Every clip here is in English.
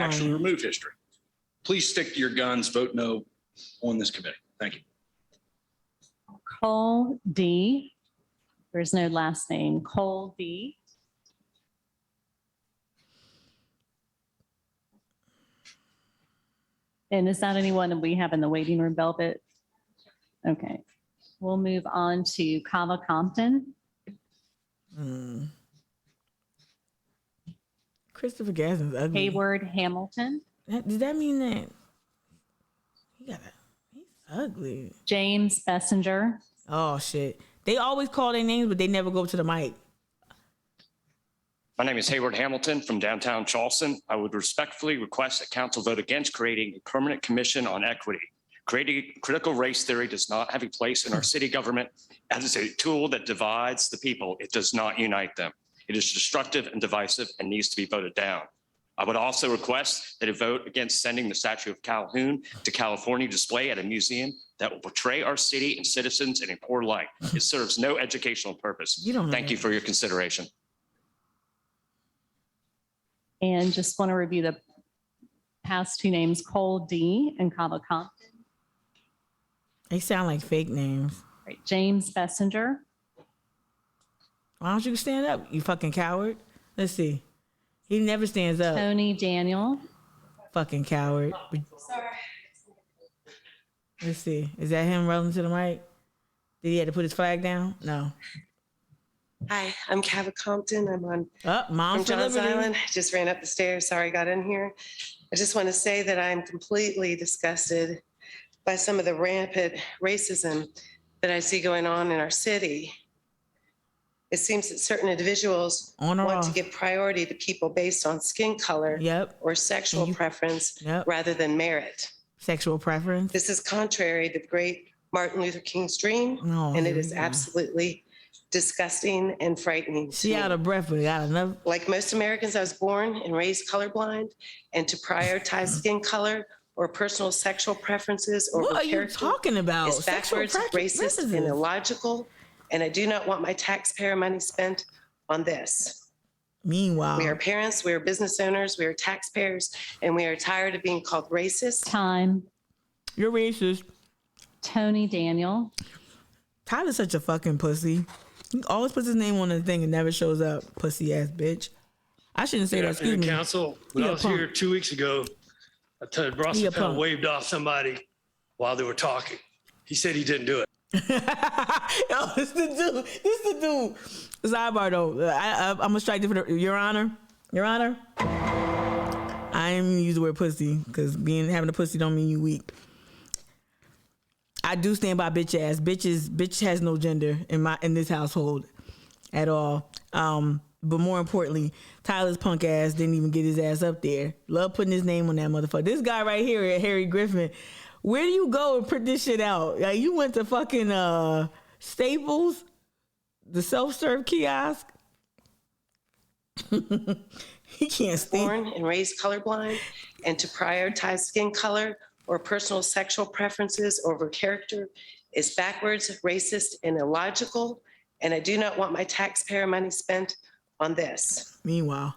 actually remove history. Please stick to your guns, vote no on this committee. Thank you. Cole D. There is no last name. Cole D. And is that anyone that we have in the waiting room, Velvet? Okay, we'll move on to Kava Compton. Mm. Christopher Gaston's ugly. Hayward Hamilton, That- does that mean that he got a, he's ugly? James Bessinger, Oh shit! They always call their names, but they never go to the mic. My name is Hayward Hamilton from downtown Charleston. I would respectfully request that council vote against creating a permanent commission on equity. Creating critical race theory does not have a place in our city government as a tool that divides the people. It does not unite them. It is destructive and divisive and needs to be voted down. I would also request that a vote against sending the statue of Calhoun to California display at a museum that will portray our city and citizens in a poor light. It serves no educational purpose. You don't know Thank you that. for your consideration. and just want to review the past two names, Cole D. and Kava Compton. They sound like fake names. Right, James Bessinger. Why don't you stand up, you fucking coward? Let's see. He never stands up, Tony Daniel, fucking coward. Let's see. Is that him rolling to the mic? Did he have to put his flag down? No. Hi, I'm Kava Compton. I'm on Up, oh, from mom's to John's liberty. Island. I just ran up the stairs. Sorry, I got in here. I just want to say that I'm completely disgusted by some of the rampant racism that I see going on in our city. It seems that certain individuals On or want to off? give priority to people based on skin color Yep. or sexual You- preference Yep. rather than merit. Sexual preference. This is contrary to the great Martin Luther King's dream, No, and here it we is go. absolutely disgusting and frightening. to She me. out of breath, but got enough. Like most Americans, I was born and raised colorblind, and to prioritize skin color or personal sexual preferences or What are you character talking about? is backwards, preference- racist, and racism. illogical. And I do not want my taxpayer money spent on this. Meanwhile, We are parents, we are business owners, we are taxpayers, and we are tired of being called racist. time, you're racist. Tony Daniel, Tyler's such a fucking pussy. He always puts his name on the thing and never shows up. Pussy ass bitch. I shouldn't say Good that. Excuse afternoon, me. council. When Mm. He a I was here punk. two weeks ago, I told He Bronson a Powell punk. waved off somebody while they were talking. He said he didn't do it. oh, this the dude. This the dude. Sidebar though. I, I, I'm gonna strike different. Your Honor. Your Honor. I am use the word pussy because being having a pussy don't mean you weak. I do stand by bitch ass. Bitches, bitch has no gender in my in this household at all. Um, but more importantly, Tyler's punk ass didn't even get his ass up there. Love putting his name on that motherfucker. This guy right here, Harry Griffin. Where do you go and print this shit out? Like you went to fucking uh Staples, the self serve kiosk. he can't stand. Born and raised colorblind, and to prioritize skin color or personal sexual preferences over character is backwards, racist, and illogical. And I do not want my taxpayer money spent on this. Meanwhile.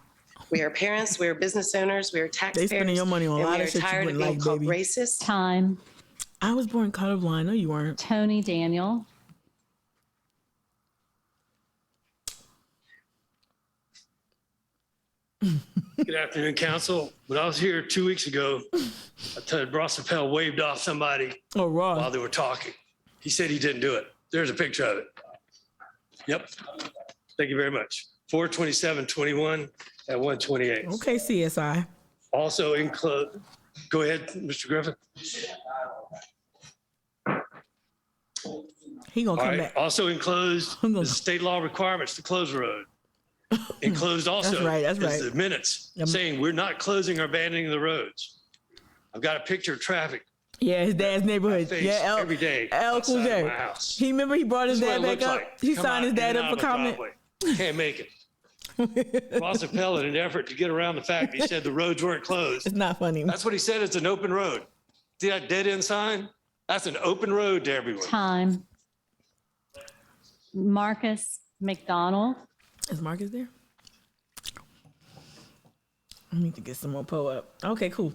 We are parents, we are business owners, we are taxpayers. your money on a and lot we of are shit you tired of wouldn't being like, called baby. Racist. time, I was born colorblind. No, you weren't. Tony Daniel, Good afternoon, council. When I was here two weeks ago, I told Bronson Powell waved off somebody Oh, raw. while they were talking. He said he didn't do it. There's a picture of it. Yep. Thank you very much. 427, 21 at 128. Okay, CSI. Also include, go ahead, Mr. Griffin. He gonna All come right. back. Also enclosed I'm gonna- is state law requirements to close the road. Enclosed also right, that's is right. the minutes Yep. saying we're not closing or abandoning the roads. I've got a picture of traffic Yeah, his dad's neighborhood. face Yeah, El, every day El outside of my Cool house. He remember he brought his This is what dad it back looks up. like. He Come signed his out dad and up out for of my comment. driveway. Can't make it. Ross Appel, in an effort to get around the fact, he said the roads weren't closed. It's not funny. That's what he said. It's an open road. See that dead end sign? That's an open road to everyone. time, Marcus McDonald, Is Marcus there? I need to get some more po up. Okay, cool.